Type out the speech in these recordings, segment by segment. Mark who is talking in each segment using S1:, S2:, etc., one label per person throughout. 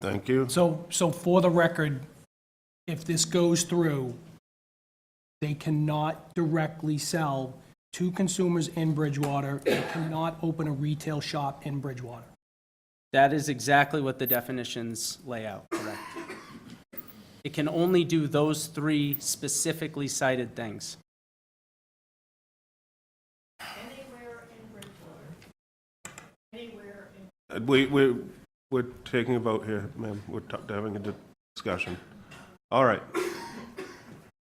S1: Thank you.
S2: So, so for the record, if this goes through, they cannot directly sell to consumers in Bridgewater. They cannot open a retail shop in Bridgewater.
S3: That is exactly what the definitions lay out, correct? It can only do those three specifically cited things.
S1: Uh, We, we, we're taking a vote here, ma'am. We're ta- having a di- discussion. All right.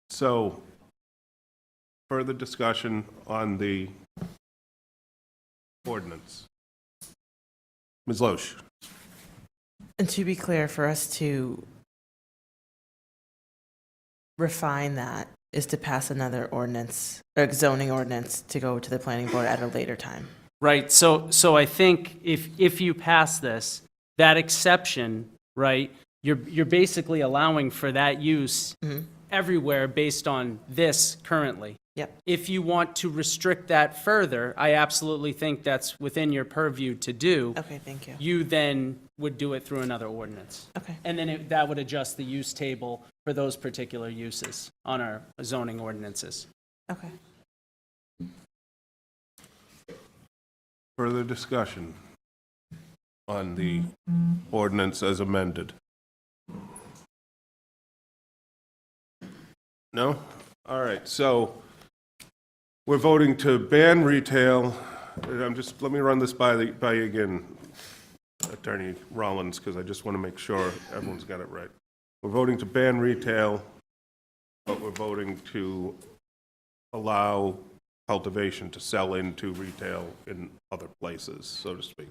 S1: So, further discussion on the ordinance. Ms. Loesch?
S4: And to be clear, for us to refine that is to pass another ordinance, or zoning ordinance, to go to the planning board at a later time.
S3: Right, so, so I think if, if you pass this, that exception, right, you're, you're basically allowing for that use everywhere based on this currently.
S4: Yep.
S3: If you want to restrict that further, I absolutely think that's within your purview to do.
S4: Okay, thank you.
S3: You then would do it through another ordinance.
S4: Okay,
S3: And then it- that would adjust the use table for those particular uses on our zoning ordinances.
S4: okay.
S1: Further discussion on the ordinance as amended? No? All right, so we're voting to ban retail. I'm just, let me run this by, the by you again, Attorney Rollins, because I just want to make sure everyone's got it right. We're voting to ban retail, but we're voting to allow cultivation to sell into retail in other places, so to speak.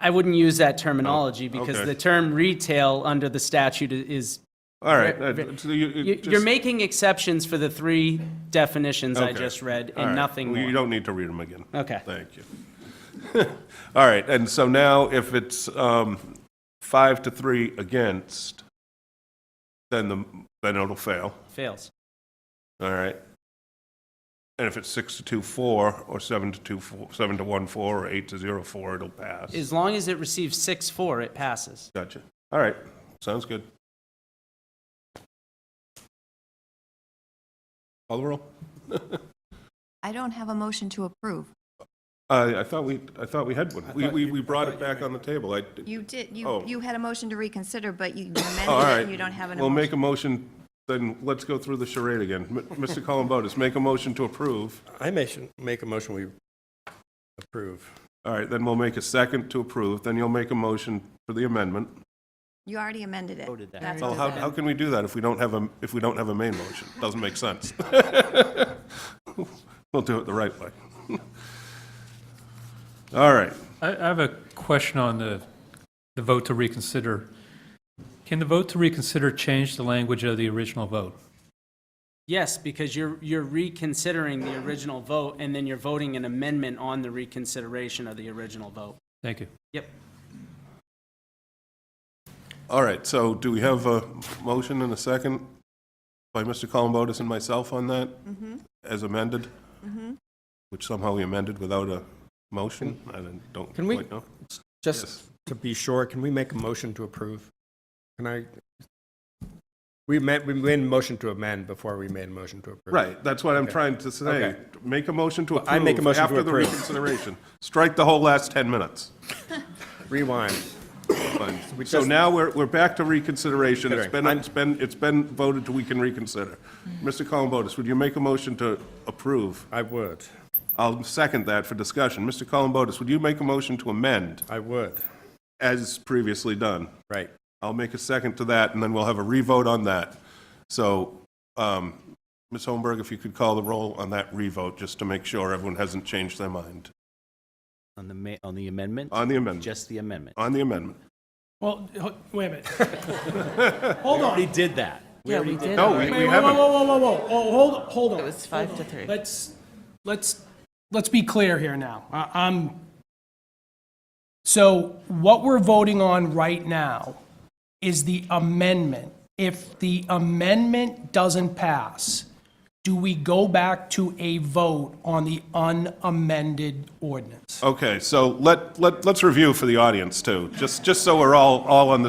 S3: I wouldn't use that terminology because
S1: Oh, okay.
S3: the term retail under the statute i- is,
S1: All right.
S3: Right,
S1: uh,
S3: right.
S1: so you- you
S3: you- you're
S1: just-
S3: making exceptions for the three definitions I
S1: Okay.
S3: just read
S1: all right.
S3: and nothing
S1: Well, You
S3: more.
S1: don't need to read them again.
S3: Okay.
S1: Thank you. All right, and so now if it's um, five to three against, then the, then it'll fail,
S3: Fails.
S1: all right? And if it's six to two, four, or seven to two, four, seven to one, four, or eight to zero, four, it'll pass.
S3: As long as it receives six four, it passes.
S1: Gotcha. All right, sounds good. Call the roll.
S5: I don't have a motion to approve.
S1: I, I thought we, I thought we had one. We, we, we brought it back on the table. I,
S5: You did, you,
S1: Oh.
S5: you had a motion to reconsider, but you amended
S1: all
S5: it
S1: right.
S5: and you don't have an
S1: We'll make
S5: emotion.
S1: a motion, then let's go through the charade again. M- Mr. Columbotus, make a motion to approve.
S6: I motion, make a motion we approve.
S1: All right, then we'll make a second to approve, then you'll make a motion for the amendment.
S5: You already amended it.
S3: Voted that.
S5: That's
S1: Well, how,
S5: what
S1: how can we do that if we don't have a, if we don't have a main motion? Doesn't make sense. We'll do it the right way. All right.
S7: I, I have a question on the, the vote to reconsider. Can the vote to reconsider change the language of the original vote?
S3: Yes, because you're, you're reconsidering the original vote and then you're voting an amendment on the reconsideration of the original vote.
S7: Thank you.
S3: Yep.
S1: All right, so do we have a motion and a second by Mr. Columbotus and myself on that? As amended? Which somehow we amended without a motion? I don't- don't
S6: Can we-
S1: quite know.
S6: Just to be sure, can we make a motion to approve? Can I? We made, we made a motion to amend before we made a motion to approve.
S1: Right, that's what I'm
S6: Okay.
S1: trying to say.
S6: Okay.
S1: Make a motion to approve.
S6: I make a motion to
S1: After the
S6: approve.
S1: reconsideration. Strike the whole last 10 minutes.
S6: Rewind.
S1: Fine.
S6: we
S1: So
S6: just-
S1: now we're, we're back to reconsideration. It's been,
S6: Considering.
S1: it's been, it's been voted to we can reconsider.
S6: Mm-hmm.
S1: Mr. Columbotus, would you make a motion to approve?
S6: I would,
S1: I'll second that for discussion. Mr. Columbotus, would you make a motion to amend
S6: I would,
S1: as previously done?
S6: right.
S1: I'll make a second to that, and then we'll have a revote on that. So, um, Ms. Holmberg, if you could call the roll on that revote, just to make sure everyone hasn't changed their mind
S8: On the ma, on the amendment?
S1: on the amendment,
S8: Just the amendment.
S1: on the amendment.
S2: Well, h- wait a minute. Hold on.
S8: He did that.
S4: Yeah, we did.
S1: No, we
S2: Wait,
S1: we
S2: whoa, whoa,
S1: haven't.
S2: whoa, whoa, whoa, whoa. Oh, hold, hold on.
S4: It was five to three.
S2: Let's, let's, let's be clear here now. I- I'm, so what we're voting on right now is the amendment. If the amendment doesn't pass, do we go back to a vote on the unamended ordinance?
S1: Okay, so let, let, let's review for the audience, too, just, just so we're all, all on the